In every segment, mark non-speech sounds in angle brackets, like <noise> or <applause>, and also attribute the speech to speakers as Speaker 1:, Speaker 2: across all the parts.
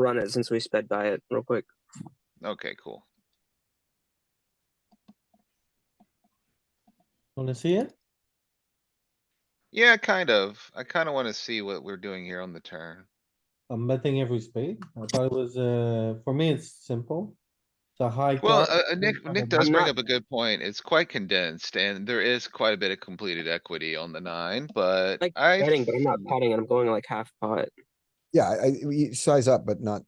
Speaker 1: run it since we sped by it real quick.
Speaker 2: Okay, cool.
Speaker 3: Wanna see it?
Speaker 2: Yeah, kind of. I kinda wanna see what we're doing here on the turn.
Speaker 3: I'm betting every spade. I thought it was, uh, for me, it's simple. It's a high.
Speaker 2: Well,
Speaker 3: card.
Speaker 2: uh, uh, Nick,
Speaker 3: have a
Speaker 2: Nick does
Speaker 1: I'm
Speaker 2: bring
Speaker 1: not-
Speaker 2: up a good point. It's quite condensed and there is quite a bit of completed equity on the nine, but
Speaker 1: Like
Speaker 2: I.
Speaker 1: Betting, but I'm not potting and I'm going like half pot.
Speaker 4: Yeah, I, I- you size up, but not.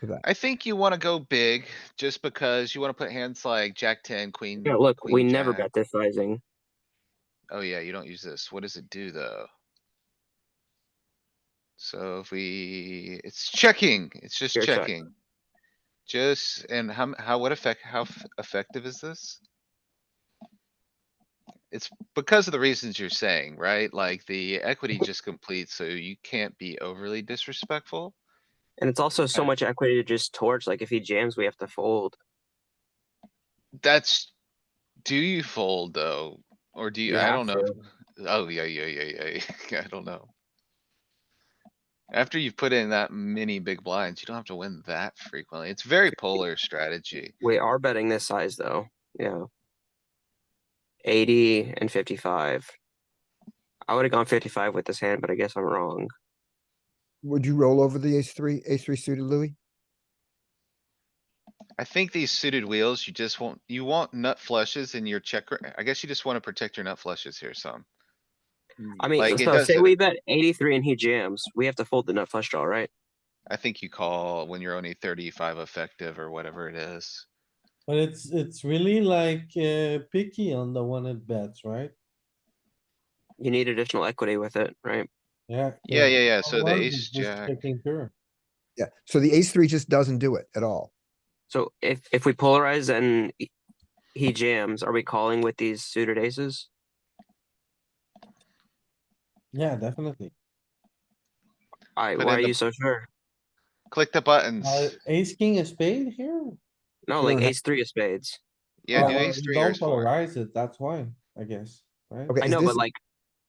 Speaker 4: to that.
Speaker 2: I think you wanna go big just because you wanna put hands like jack ten, queen.
Speaker 1: Yeah, look, we
Speaker 2: queen
Speaker 1: never
Speaker 2: jack.
Speaker 1: bet this sizing.
Speaker 2: Oh yeah, you don't use this. What does it do though? So if we, it's checking, it's just
Speaker 1: Pure check.
Speaker 2: checking. Just, and how, m- how, what effect, how f- effective is this? It's because of the reasons you're saying, right? Like the equity just completes, so you can't be overly disrespectful.
Speaker 1: And it's also so
Speaker 2: Okay.
Speaker 1: much equity to just torch. Like if he jams, we have to fold.
Speaker 2: That's, do you fold though? Or do you,
Speaker 1: You
Speaker 2: I
Speaker 1: have
Speaker 2: don't know.
Speaker 1: to.
Speaker 2: Oh, yeah, yeah, yeah, yeah, yeah, <laughs> I don't know. After you've put in that many big blinds, you don't have to win that frequently. It's very polar strategy.
Speaker 1: We are betting this size though. Yeah. 80 and 55. I would have gone 55 with this hand, but I guess I'm wrong.
Speaker 4: Would you roll over the ace three, ace three suited Louis?
Speaker 2: I think these suited wheels, you just want, you want nut flushes in your checker. I guess you just wanna protect your nut flushes here some.
Speaker 3: Hmm.
Speaker 1: I mean,
Speaker 2: Like, it
Speaker 1: so say
Speaker 2: doesn't-
Speaker 1: we bet 83 and he jams, we have to fold the nut flush draw, right?
Speaker 2: I think you call when you're only thirty-five effective or whatever it is.
Speaker 3: But it's, it's really like, uh, picky on the one it bets, right?
Speaker 1: You need additional equity with it, right?
Speaker 3: Yeah.
Speaker 2: Yeah, yeah, yeah, so the
Speaker 3: Otherwise,
Speaker 2: ace
Speaker 3: it's just
Speaker 2: jack,
Speaker 3: checking pure.
Speaker 4: Yeah, so the ace three just doesn't do it at all.
Speaker 1: So if if we polarize and he- he jams, are we calling with these suited aces?
Speaker 3: Yeah, definitely.
Speaker 1: All right,
Speaker 2: But
Speaker 1: why
Speaker 2: in
Speaker 1: are
Speaker 2: the-
Speaker 1: you so sure?
Speaker 2: click the buttons.
Speaker 3: Uh, ace, king, a spade here?
Speaker 1: No, like
Speaker 4: don't have-
Speaker 1: ace three of spades.
Speaker 2: Yeah,
Speaker 3: Oh,
Speaker 2: do
Speaker 3: well,
Speaker 2: ace
Speaker 3: you
Speaker 2: three or
Speaker 3: don't
Speaker 2: ace four.
Speaker 3: Polarize it, that's why, I guess, right?
Speaker 4: Okay,
Speaker 1: I
Speaker 4: is
Speaker 1: know,
Speaker 4: this-
Speaker 1: but like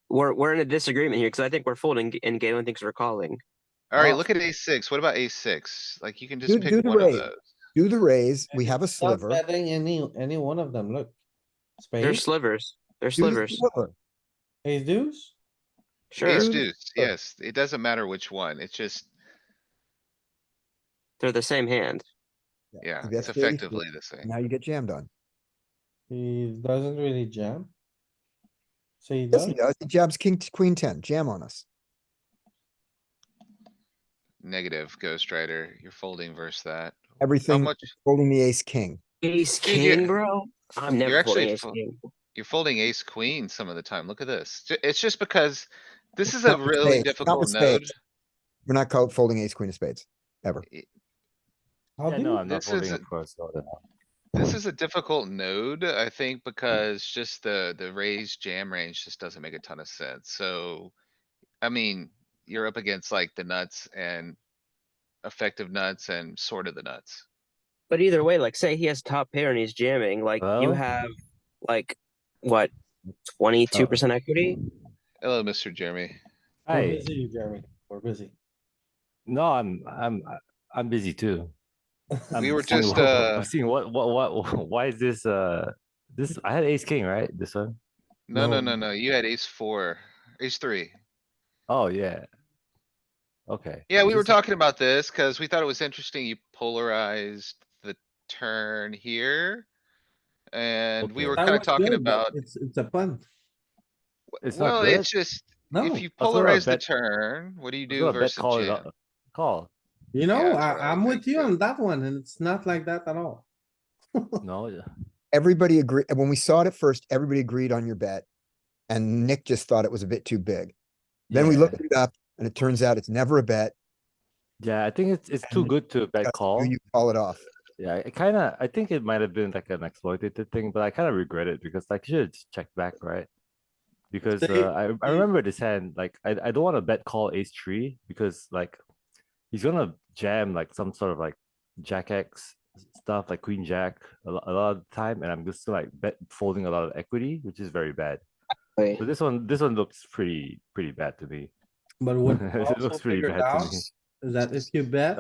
Speaker 1: we're we're in a disagreement here because I think we're folding and Galen thinks we're calling.
Speaker 2: Alright,
Speaker 3: Wow.
Speaker 2: look at ace six. What about ace six? Like you can
Speaker 4: Do-
Speaker 2: just
Speaker 4: do
Speaker 2: pick
Speaker 4: the
Speaker 2: one of
Speaker 4: raise.
Speaker 2: those.
Speaker 4: do the raise, we have
Speaker 3: Not
Speaker 4: a sliver.
Speaker 3: betting any, any one of them, look.
Speaker 1: They're
Speaker 3: Spade,
Speaker 1: slivers. They're
Speaker 4: do the
Speaker 1: slivers.
Speaker 4: sliver.
Speaker 3: ace deuce,
Speaker 1: Sure,
Speaker 2: Ace
Speaker 4: Sure.
Speaker 2: deuce, yes. It doesn't matter which one. It's just,
Speaker 1: they're the same hand.
Speaker 2: yeah,
Speaker 4: that's
Speaker 2: it's
Speaker 4: the ace deuce.
Speaker 2: effectively the same.
Speaker 4: Now you get jammed on.
Speaker 3: he doesn't really jam. So he
Speaker 4: Yes, he
Speaker 3: does,
Speaker 4: does. He jabs king, t- queen ten, jam on us.
Speaker 2: Negative Ghost Rider, you're folding versus that. How
Speaker 4: Everything
Speaker 2: much,
Speaker 4: holding the ace king.
Speaker 1: Ace
Speaker 2: Dude, you're-
Speaker 1: king, bro. I'm
Speaker 2: you're
Speaker 1: never folding
Speaker 2: actually
Speaker 1: ace
Speaker 2: fo-
Speaker 1: king.
Speaker 2: you're folding ace queen some of the time. Look at this. Ju- It's just because this
Speaker 4: It's
Speaker 2: is a
Speaker 4: not with
Speaker 2: really
Speaker 4: spades, not
Speaker 2: difficult
Speaker 4: with
Speaker 2: node.
Speaker 4: spades. We're not called folding ace queen of spades, ever.
Speaker 3: how
Speaker 5: Yeah,
Speaker 3: do
Speaker 5: no,
Speaker 3: you,
Speaker 5: I'm not
Speaker 2: This
Speaker 5: folding
Speaker 2: isn't-
Speaker 5: a pro, so I don't know.
Speaker 2: This is a difficult node, I think, because just the, the raised jam range just doesn't make a ton of sense. So, I mean, you're up against like the nuts and effective nuts and sort of the nuts.
Speaker 1: But either way, like say he has top pair and he's jamming, like you
Speaker 5: Well-
Speaker 1: have like what twenty two percent equity?
Speaker 2: Hello, Mr. Jeremy.
Speaker 3: we're
Speaker 5: Hey,
Speaker 3: busy, Jeremy, we're busy.
Speaker 5: no, I'm, I'm, I'm busy too.
Speaker 2: We
Speaker 5: I'm
Speaker 2: were
Speaker 5: seeing
Speaker 2: just,
Speaker 5: what-
Speaker 2: uh,
Speaker 5: <laughs> I'm seeing what, what, what, <laughs> why is this, uh, this, I had ace king, right? This one?
Speaker 2: No, no, no,
Speaker 4: No.
Speaker 2: no. You had ace four, ace three.
Speaker 5: Oh, yeah. Okay.
Speaker 2: Yeah, we were
Speaker 5: This-
Speaker 2: talking about this cuz we thought it was interesting. You polarized the turn here. And we
Speaker 5: Okay.
Speaker 2: were
Speaker 3: That
Speaker 2: kinda
Speaker 3: was
Speaker 2: talking
Speaker 3: good, but
Speaker 2: about,
Speaker 3: It's, it's a punt.
Speaker 5: It's not
Speaker 2: well,
Speaker 5: good.
Speaker 2: it's just,
Speaker 3: No,
Speaker 2: if you
Speaker 5: I thought I
Speaker 2: polarize the
Speaker 5: bet-
Speaker 2: turn, what do you
Speaker 5: I
Speaker 2: do
Speaker 5: thought I bet
Speaker 2: versus
Speaker 5: call it
Speaker 2: jam?
Speaker 5: a- Call.
Speaker 3: you know,
Speaker 2: that's what I
Speaker 3: I, I'm
Speaker 2: would
Speaker 3: with
Speaker 2: think
Speaker 3: you
Speaker 2: too.
Speaker 3: on that one and it's not like that at all.
Speaker 5: No, yeah.
Speaker 4: Everybody agreed, when we saw it at first, everybody agreed on your bet. And Nick just thought it was a bit too big. Then we
Speaker 5: Yeah.
Speaker 4: looked it up and it turns out it's never a bet.
Speaker 5: Yeah, I think it's, it's too
Speaker 4: And
Speaker 5: good to bet
Speaker 4: because
Speaker 5: call.
Speaker 4: You you call it off.
Speaker 5: Yeah, I kinda, I think it might have been like an exploitative thing, but I kinda regret it because like should have just checked back, right? Because
Speaker 3: Say-
Speaker 5: uh, I I
Speaker 3: say-
Speaker 5: remember this hand, like I I don't wanna bet call ace three because like he's gonna jam like some sort of like jack X s- stuff, like queen jack a lot, a lot of the time, and I'm just like bet folding a lot of equity, which is very bad.
Speaker 1: Like,
Speaker 5: So this one, this one looks pretty pretty bad to me.
Speaker 3: But what
Speaker 5: <laughs> It
Speaker 3: we
Speaker 5: looks
Speaker 3: also
Speaker 5: pretty
Speaker 3: figured
Speaker 5: bad to
Speaker 3: out
Speaker 5: me.
Speaker 3: Is that if you bet?